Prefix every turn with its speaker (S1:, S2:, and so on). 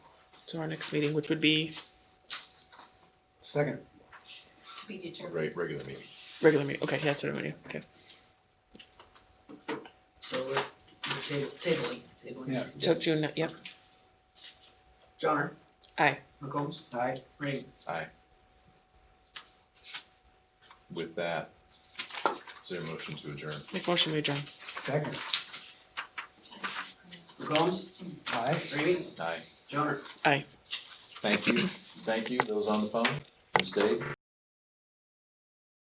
S1: to our next meeting, which would be
S2: Second.
S3: to be determined.
S4: Right, regular meeting.
S1: regular meeting, okay, yeah, it's a meeting, okay.
S3: So we're we're table- tabling, tabling.
S2: Yeah.
S1: So June, ni- yep,
S3: Johnner?
S1: Aye.
S3: McCombs?
S2: Aye.
S3: Rainey?
S4: Aye. With that, is there a motion to adjourn?
S1: make motion, we adjourn.
S2: Second.
S3: McCombs?
S2: Aye.
S3: Rainey?
S4: Aye.
S3: Johnner?
S4: Thank you, thank you, those on the phone, who stayed.